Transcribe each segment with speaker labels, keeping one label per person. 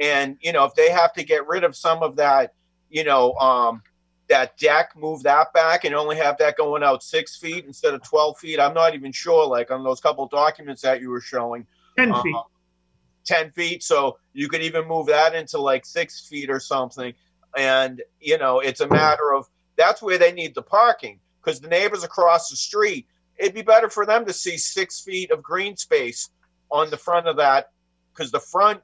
Speaker 1: And you know, if they have to get rid of some of that, you know, um, that deck, move that back, and only have that going out six feet instead of twelve feet. I'm not even sure. Like on those couple documents that you were showing,
Speaker 2: ten
Speaker 1: uh,
Speaker 2: feet.
Speaker 1: ten feet. So you could even move that into like six feet or something. And you know, it's a matter of that's where they need the parking because the neighbors across the street. It'd be better for them to see six feet of green space on the front of that because the front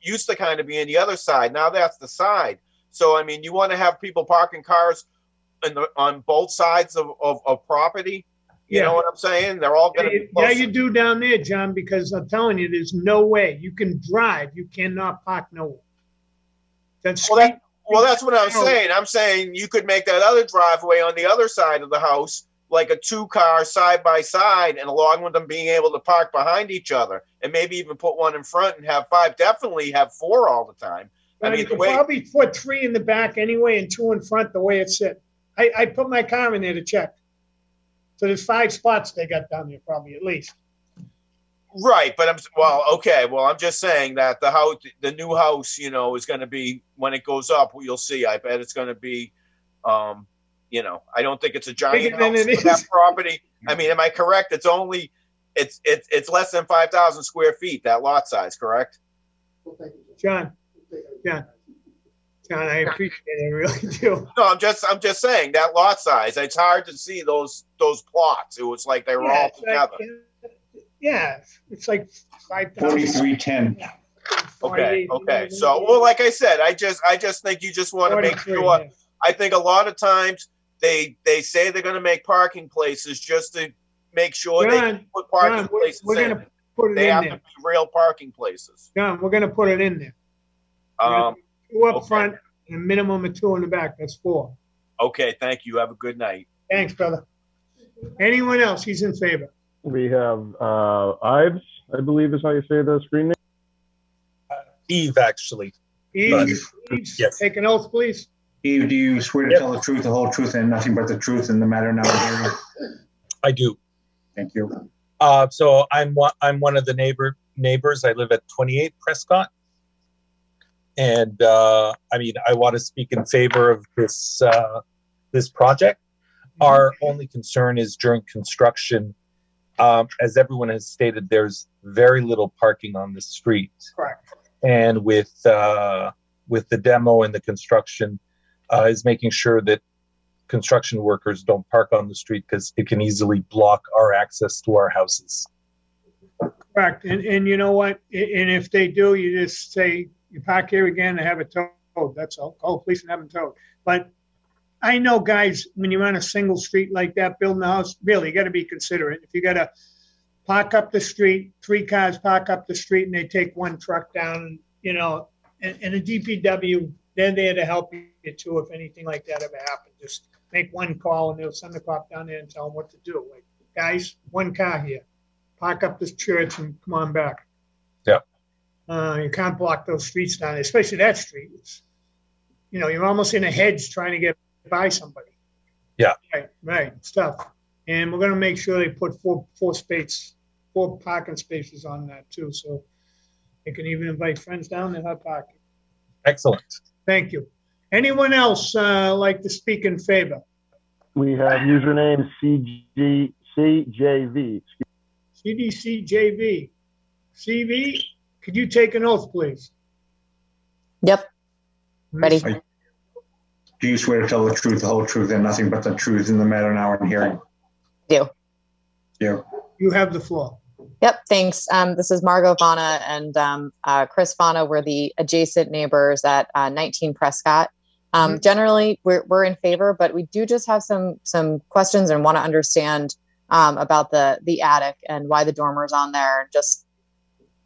Speaker 1: used to kind of be in the other side. Now that's the side. So I mean, you want to have people parking cars in the, on both sides of, of, of property. You
Speaker 2: Yeah.
Speaker 1: know what I'm saying? They're all going to be
Speaker 2: Yeah,
Speaker 1: close.
Speaker 2: you do down there, John, because I'm telling you, there's no way. You can drive, you cannot park nowhere. That's
Speaker 1: Well, that-
Speaker 2: street,
Speaker 1: well, that's what I'm
Speaker 2: No.
Speaker 1: saying. I'm saying you could make that other driveway on the other side of the house like a two car side by side, and along with them being able to park behind each other, and maybe even put one in front and have five. Definitely have four all the time. I mean,
Speaker 2: you
Speaker 1: the
Speaker 2: could
Speaker 1: way-
Speaker 2: probably put three in the back anyway and two in front, the way it's set. I, I put my car in there to check. So there's five spots they got down there probably at least.
Speaker 1: Right, but I'm well. Okay, well, I'm just saying that the house, the new house, you know, is going to be when it goes up. You'll see. I bet it's going to be, um, you know, I don't think it's a giant
Speaker 2: Bigger than
Speaker 1: house
Speaker 2: it
Speaker 1: for that
Speaker 2: is.
Speaker 1: property. I mean, am I correct? It's only, it's it's it's less than five thousand square feet that lot size, correct?
Speaker 2: John, John, John, I appreciate it, I really do.
Speaker 1: No, I'm just I'm just saying that lot size. It's hard to see those those plots. It was like they were
Speaker 2: Yeah,
Speaker 1: all
Speaker 2: it's like,
Speaker 1: together.
Speaker 2: uh, Yeah, it's like five thousand.
Speaker 3: Forty-three ten.
Speaker 1: Okay, okay. So, well, like I said, I just I just think you just want to make sure. I think a lot of times they they say they're going to make parking places just to make sure they
Speaker 2: John,
Speaker 1: can put parking
Speaker 2: John, we're-
Speaker 1: places
Speaker 2: we're
Speaker 1: in.
Speaker 2: gonna Put it
Speaker 1: they
Speaker 2: in
Speaker 1: have to
Speaker 2: there.
Speaker 1: be real parking plaplaces.
Speaker 2: John, we're gonna put it in there.
Speaker 1: Um,
Speaker 2: Two up
Speaker 1: okay.
Speaker 2: front and a minimum of two in the back. That's four.
Speaker 1: okay, thank you. Have a good night.
Speaker 2: Thanks, brother. Anyone else? He's in favor.
Speaker 4: We have uh, Ives, I believe is how you say the screen name.
Speaker 5: Eve, actually.
Speaker 2: Eves, Eves,
Speaker 5: Yes.
Speaker 2: take an oath, please.
Speaker 3: Eve, do you swear to
Speaker 5: Yep.
Speaker 3: tell the truth, the whole truth, and nothing but the truth in the matter now in hearing?
Speaker 5: I do.
Speaker 3: Thank you.
Speaker 5: Uh, so I'm one, I'm one of the neighbor neighbors. I live at 28 Prescott. And uh, I mean, I want to speak in favor of this uh, this project. Our only concern is during construction. Um, as everyone has stated, there's very little parking on the street.
Speaker 2: Correct.
Speaker 5: And with uh, with the demo and the construction, uh, is making sure that construction workers don't park on the street because it can easily block our access to our houses.
Speaker 2: Correct. And, and you know what? A- And if they do, you just say, you park here again and have it towed. That's all. Call the police and have them towed. But I know, guys, when you're on a single street like that, building a house, really, you gotta be considerate. If you gotta park up the street, three cars park up the street and they take one truck down, you know, and, and the DPW, they're there to help you too, if anything like that ever happened. Just make one call and they'll send the cop down there and tell them what to do. Like, guys, one car here park up this church and come on back.
Speaker 5: Yep.
Speaker 2: Uh, you can't block those streets down, especially that street. It's, you know, you're almost in a hedge trying to get by somebody.
Speaker 5: Yeah.
Speaker 2: Right, right, stuff. And we're gonna make sure they put four, four spaces, four parking spaces on that too, so they can even invite friends down and have parking.
Speaker 5: Excellent.
Speaker 2: Thank you. Anyone else, uh, like to speak in favor?
Speaker 4: We have username CG, CJV.
Speaker 2: CDC JV. CV, could you take an oath, please?
Speaker 6: Yep, ready.
Speaker 3: Do you swear to tell the truth, the whole truth, and nothing but the truth in the matter now in hearing?
Speaker 6: Do.
Speaker 3: Do.
Speaker 2: You have the floor.
Speaker 6: Yep, thanks. Um, this is Margot Vana and um, uh, Chris Vana. We're the adjacent neighbors at uh, 19 Prescott. Um,
Speaker 2: Mhm.
Speaker 6: Generally, we're, we're in favor, but we do just have some some questions and want to understand um, about the the attic and why the dormer's on there. and Just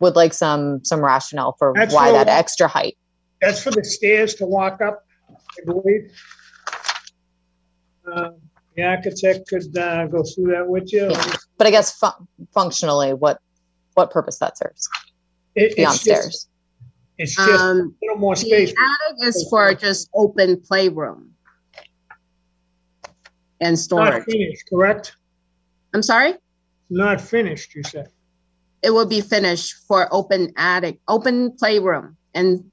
Speaker 6: would like some some rationale for
Speaker 2: That's
Speaker 6: why
Speaker 2: what-
Speaker 6: that extra height.
Speaker 2: That's for the stairs to walk up, I believe. Uh, The architect could uh, go through that with you.
Speaker 6: Yeah. But I guess fu- functionally, what what purpose that serves
Speaker 2: It-
Speaker 6: beyond
Speaker 2: It's just,
Speaker 6: stairs?
Speaker 2: it's just a
Speaker 7: Um,
Speaker 2: little more
Speaker 7: the
Speaker 2: space.
Speaker 7: attic is for just open playroom and
Speaker 2: Not
Speaker 7: storage.
Speaker 2: finished, correct?
Speaker 7: I'm sorry?
Speaker 2: Not finished, you said.
Speaker 7: It will be finished for open attic, open playroom and